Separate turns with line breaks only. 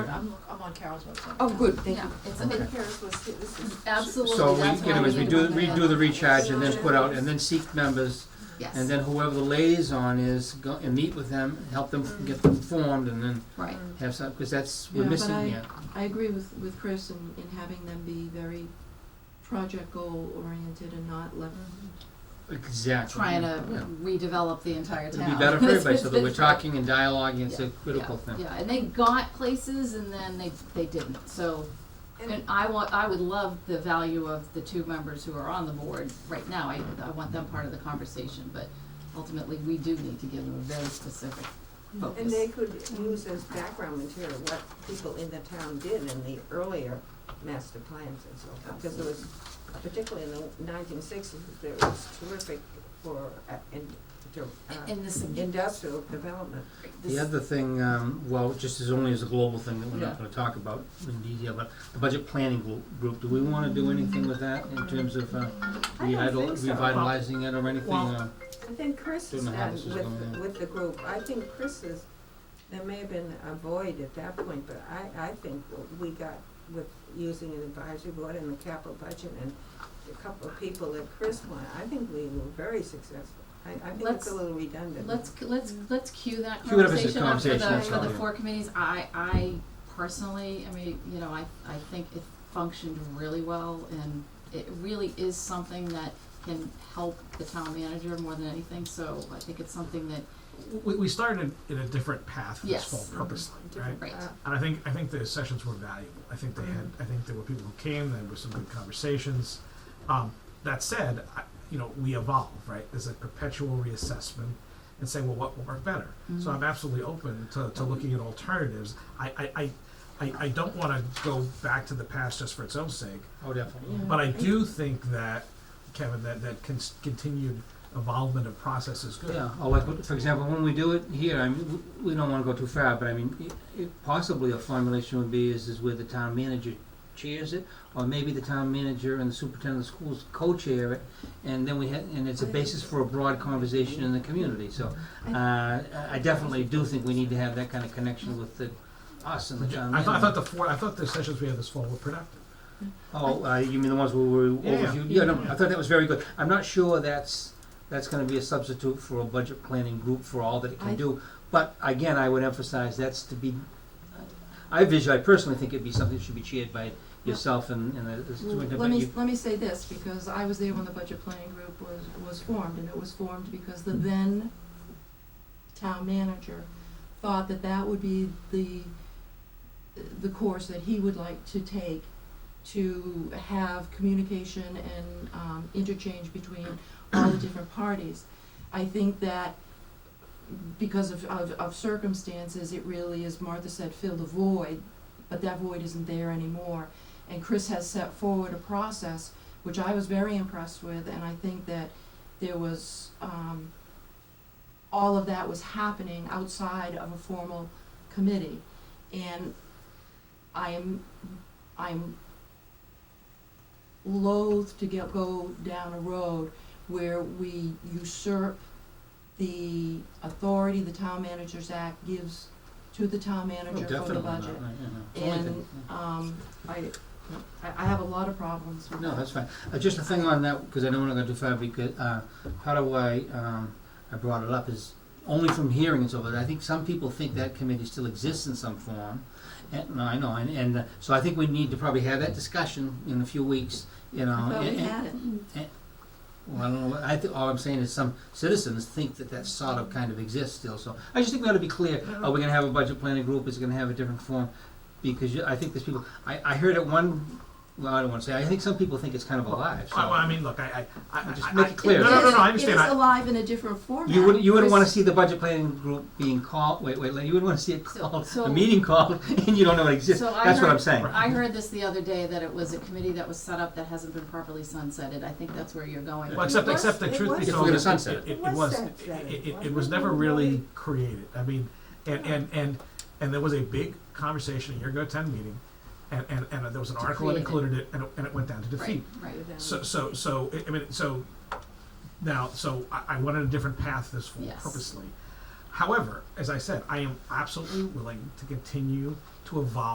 on Carol's website.
Oh, good, thank you.
Yeah, it's,
Okay.
it,
Paris was, it was just-
absolutely,
So we,
that's
you know,
why
as we
need
do,
to have
redo the
it.
recharge and then put out, and then seek members,
Yes.
and then whoever the liaison is, go and meet with them, help them get them formed, and then
Right,
have some, because that's, we're
Yeah, but I-
missing here.
I agree with, with Chris in, in having them be very project goal oriented and not left
Exactly.
trying to
Yeah.
redevelop the entire town.
It'd be better for everybody, so that we're
It's been-
talking and dialoguing, it's a critical
yeah,
thing.
Yeah, and they got places and then they, they didn't, so, and I want, I would love the value of the two members who are on the board right now, I, I want them part of the conversation, but ultimately, we do need to give them a very specific
and they
focus.
could use as background material what people in the town did in the earlier master plans and so forth. Because there was, particularly in the nineteen sixties, there was terrific for, uh, in, to, uh,
And this,
industrial development.
The
this,
other thing, um, well, just as only as a global thing that we're
Yeah.
not gonna talk about in detail, but the budget planning glo- group, do we wanna do anything with that in terms of, uh,
I don't
reidol-
think so.
revitalizing it or anything,
Well,
uh,
I think Chris is
Don't know how
done
this is
with,
going.
with the group, I think Chris is, there may have been a void at that point, but I, I think what we got with using an advisory board and the capital budget and a couple of people that Chris wanted, I think we were very successful. I, I think it's
Let's-
a little redundant.
let's, let's, let's cue that
Cue it up as
conversation up for
a
the,
conversation, that's
for the
all, yeah.
four committees, I, I personally, I mean, you know, I, I think it functioned really well, and it really is something that can help the town manager more than anything, so I think it's something that,
we, we started in a different path for
Yes.
this fall purposely, right?
right,
Uh,
And I think I think the sessions were valuable. I think they had. I think there were people who came. There were some good conversations. Um, that said, I, you know, we evolve, right? There's a perpetual reassessment and saying, well, what will work better? So I'm absolutely open to, to looking at alternatives. I I, I, I, I don't want to go back to the past just for its own sake.
oh, definitely.
But I do think that, Kevin, that, that cons- continued evolvement of process is good.
Yeah, or like, for example, when we do it here, I mean, w- we don't wanna go too far, but I mean, i- i possibly a formulation would be is, is where the town manager chairs it, or maybe the town manager and the superintendent of schools co-chair it, and then we ha- and it's a basis for a broad conversation in the community, so, uh, I- I definitely do think we need to have that kind of connection with the, us and the town
I
manager.
thought, I thought the four, I thought the sessions we had this fall were productive.
Oh, uh, you mean the ones where we
Yeah, yeah.
overviewed, yeah, no, I thought that was very good, I'm not sure that's, that's gonna be a substitute for a budget planning group for all that it
I-
can do. But again, I would emphasize that's to be, I visually, I personally think it'd be something that should be chaired by yourself and, and the- the
Well,
superintendent.
Let me,
You-
let me say this, because I was there when the budget planning group was, was formed, and it was formed because the then town manager thought that that would be the, the course that he would like to take to have communication and, um, interchange between all the different parties. I think that because of, of, of circumstances, it really, as Martha said, filled a void, but that void isn't there anymore and Chris has set forward a process which I was very impressed with, and I think that there was um, all of that was happening outside of a formal committee, and I am I'm loath to get go down a road where we usurp the authority the town managers act gives to the town manager for the
Definitely not,
budget.
right, yeah, no. It's only
And,
thing-
um, I, I I have a lot of problems with
No,
that.
that's fine. Uh, just a thing on that, because I don't wanna go too far, because, uh, how do I, um, I brought it up is only from hearing and so forth, I think some people think that committee still exists in some form. And, no, I know, and, and, uh, so I think we need to probably have that discussion in a few weeks, you know.
I thought we
and- and-
had it.
Well, I don't know, what- I think, all I'm saying is some citizens think that that sort of kind of exists still, so, I just think we ought to be clear, are we gonna have a budget planning group, is it gonna have a different form? Because you, I think there's people, I, I heard at one, well, I don't wanna say, I think some people think it's kind of alive, so.
I, well, I mean, look, I, I, I,
Just
I-
make it
I-
clear.
No, no, no, no, I
It
understand.
is
I,
alive in a different format.
You wouldn't, you wouldn't wanna
Chris-
see the budget planning group being called, wait, wait, you wouldn't wanna see it
So-
called,
so-
a meeting called, and you don't know it exists,
So I
that's what
heard-
I'm saying.
I heard this the other day, that it was a committee that was set up that hasn't been properly sunsetted, I think that's where you're going.
well, except,
It
except the
was- it
truth be
was-
If we're
told,
gonna
it,
sunset
it,
it.
it,
It was
was, it,
sunsetted.
it, it,
Wasn't
was never
it?
really created. I mean, and, and, and, and there was a big conversation, a year ago, ten meeting, and, and, and there was an article that
create it.
included it, and it, and it went down to defeat.
Right, right.
So, so, so, I- I mean, so, now, so I, I wanted a different path this fall
Yes.
purposely. However, as I said, I am absolutely willing to continue to evolve